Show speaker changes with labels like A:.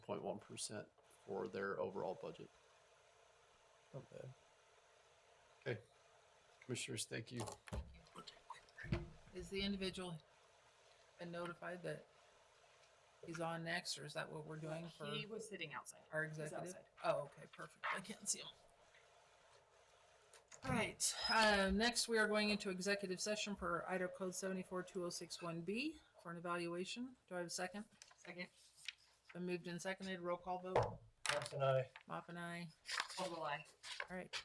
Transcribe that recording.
A: 1.1% for their overall budget. Not bad. Okay. Commissioners, thank you.
B: Is the individual been notified that he's on next, or is that what we're doing for
C: He was sitting outside.
B: our executive?
C: outside.
B: Oh, okay, perfect. I can't see him. All right, uh, next we are going into executive session per Idaho Code seventy-four two oh six one B for an evaluation. Do I have a second?
C: Second,
B: Been moved and seconded, roll call vote.
D: Thompson, I.
B: Mop and I.
C: Caldwell, aye.
B: All right,